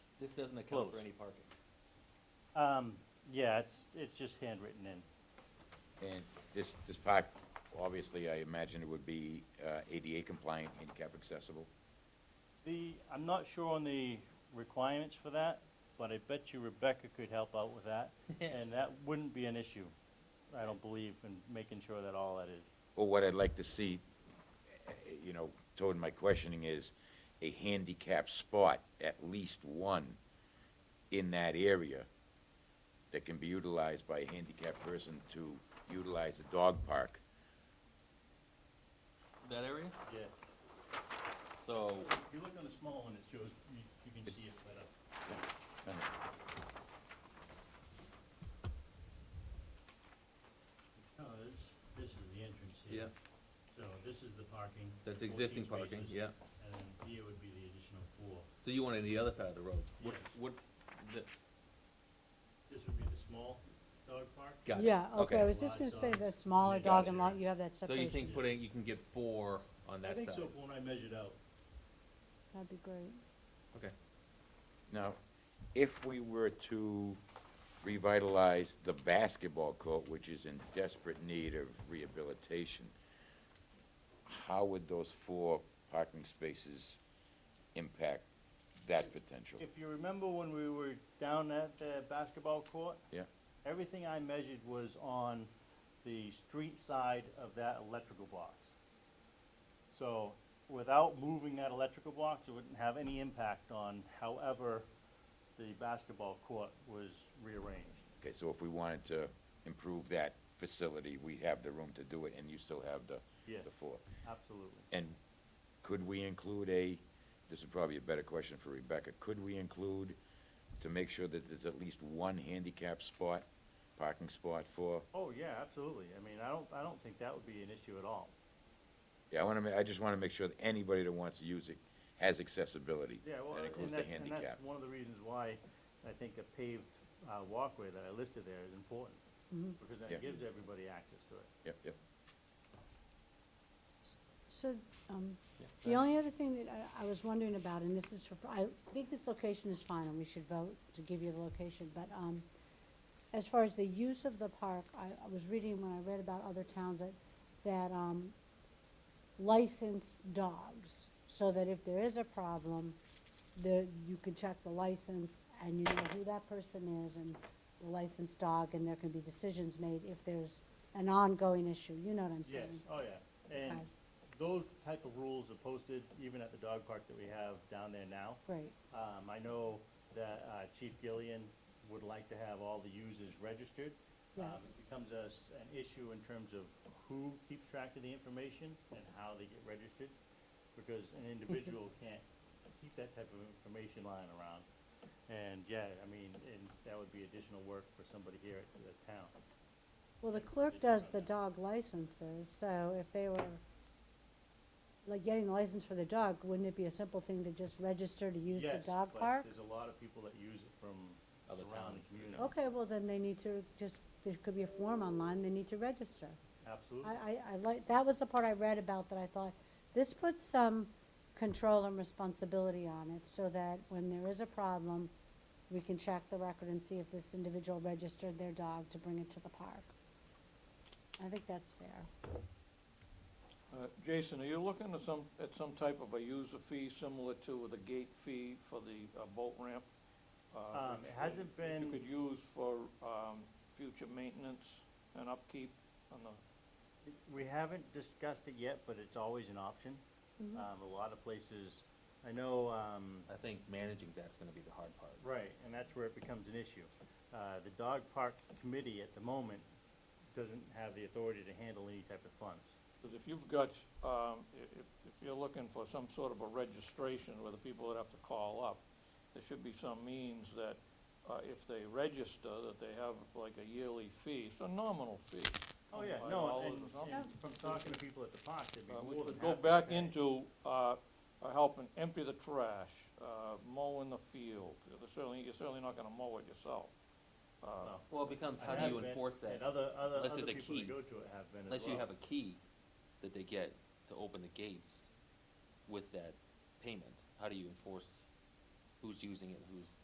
This doesn't account for Close. any parking. Um, yeah, it's, it's just handwritten in. And this, this park, obviously, I imagine it would be uh, ADA compliant, handicap accessible. The, I'm not sure on the requirements for that, but I bet you Rebecca could help out with that. And that wouldn't be an issue, I don't believe, in making sure that all that is. Well, what I'd like to see, eh, you know, toward my questioning is a handicap spot, at least one in that area that can be utilized by a handicapped person to utilize a dog park. That area? Yes. So, Oh. If you look on the small one, it shows, you, you can see it uh, better. No, this, this is the entrance here. Yeah. So this is the parking. the That's 14 existing parking, spaces, yeah. And then here would be the additional four. So you want it on the other side of the road? what, Yes. what, this, This would be the small dog park? Got it. Yeah, okay, I was Large just gonna say dogs. the smaller Yeah, dog gotcha. and lot, you have that So you separation. think putting, you can get four on that I side? think so, from when I measured out. That'd be great. Okay. Now, if we were to revitalize the basketball court, which is in desperate need of rehabilitation, how would those four parking spaces impact that potential? If you remember when we were down at the basketball court, Yeah, everything I measured was on the street side of that electrical box. So without moving that electrical box, it wouldn't have any impact on however the basketball court was rearranged. okay, so if we wanted to improve that facility, we have the room to do it, and you still have the, Yes. the four. Absolutely. And could we include a, this is probably a better question for Rebecca, could we include, to make sure that there's at least one handicap spot, parking spot for, Oh, yeah, absolutely. I mean, I don't, I don't think that would be an issue at all. yeah, I wanna, ma- I just wanna make sure that anybody that wants to use it has accessibility. Yeah, well, uh, That includes and the that's, and handicap. that's one of the reasons why I think a paved uh, walkway that I listed there is important, because Yeah. that gives everybody access to it. Yep, yep. So, um, the only other thing that I, I was wondering about, and this is for, I think this location is fine, and we should vote to give you the location, but, um, as far as the use of the park, I, I was reading when I read about other towns that, that, um, licensed dogs, so that if there is a problem, there, you can check the license, and you know who that person is, and the licensed dog, and there can be decisions made if there's an ongoing issue, you know what I'm Yes, saying? oh, yeah, and Okay. those type of rules are posted even at the dog park that we have down there now. Great. Um, I know that, uh, Chief Gillian would like to have all the users registered. Um, Yes. It becomes us an issue in terms of who keeps track of the information and how they get registered, because an Mm-hmm. individual can't keep that type of information lying around. And, yeah, I mean, and that would be additional work for somebody here at the town. Well, the clerk does the dog licenses, so if they were, like, getting the license for the dog, wouldn't it be a simple thing to just register to use the Yes, dog but park? There's a lot of people that use it from Other surrounding towns. communities. Okay, well, then they need to just, there could be a form online, they need to register. Absolutely. I, I, I like, that was the part I read about that I thought, this puts some control and responsibility on it, so that when there is a problem, we can check the record and see if this individual registered their dog to bring it to the park. I think that's fair. Uh, Jason, are you looking at some, at some type of a user fee similar to the gate fee for the uh, boat ramp? uh, Um, it which hasn't you- been- You could use for um, future maintenance and upkeep on the, We haven't discussed it yet, but it's always an option. Mm-hmm. Um, a lot of places, I know, um, I think managing that's gonna be the hard part. right, and that's where it becomes an issue. Uh, the dog park committee at the moment doesn't have the authority to handle any type of funds. because if you've got, um, i- if, if you're looking for some sort of a registration where the people would have to call up, there should be some means that uh, if they register, that they have like a yearly fee, it's a nominal fee. Oh, yeah, $25 no, or and, something. and from talking to people at the park, they'd be Uh, We more than could go happy to back pay. into, uh, uh, helping empty the trash, uh, mowing the field. You're Certainly, you're certainly not gonna mow it yourself. Uh, No. Well, it becomes, I how do you have been- enforce that? And other, other, Unless other there's a people that key. go to it have been as well. Unless you have a key that they get to open the gates with that payment, how do you enforce who's using it, who's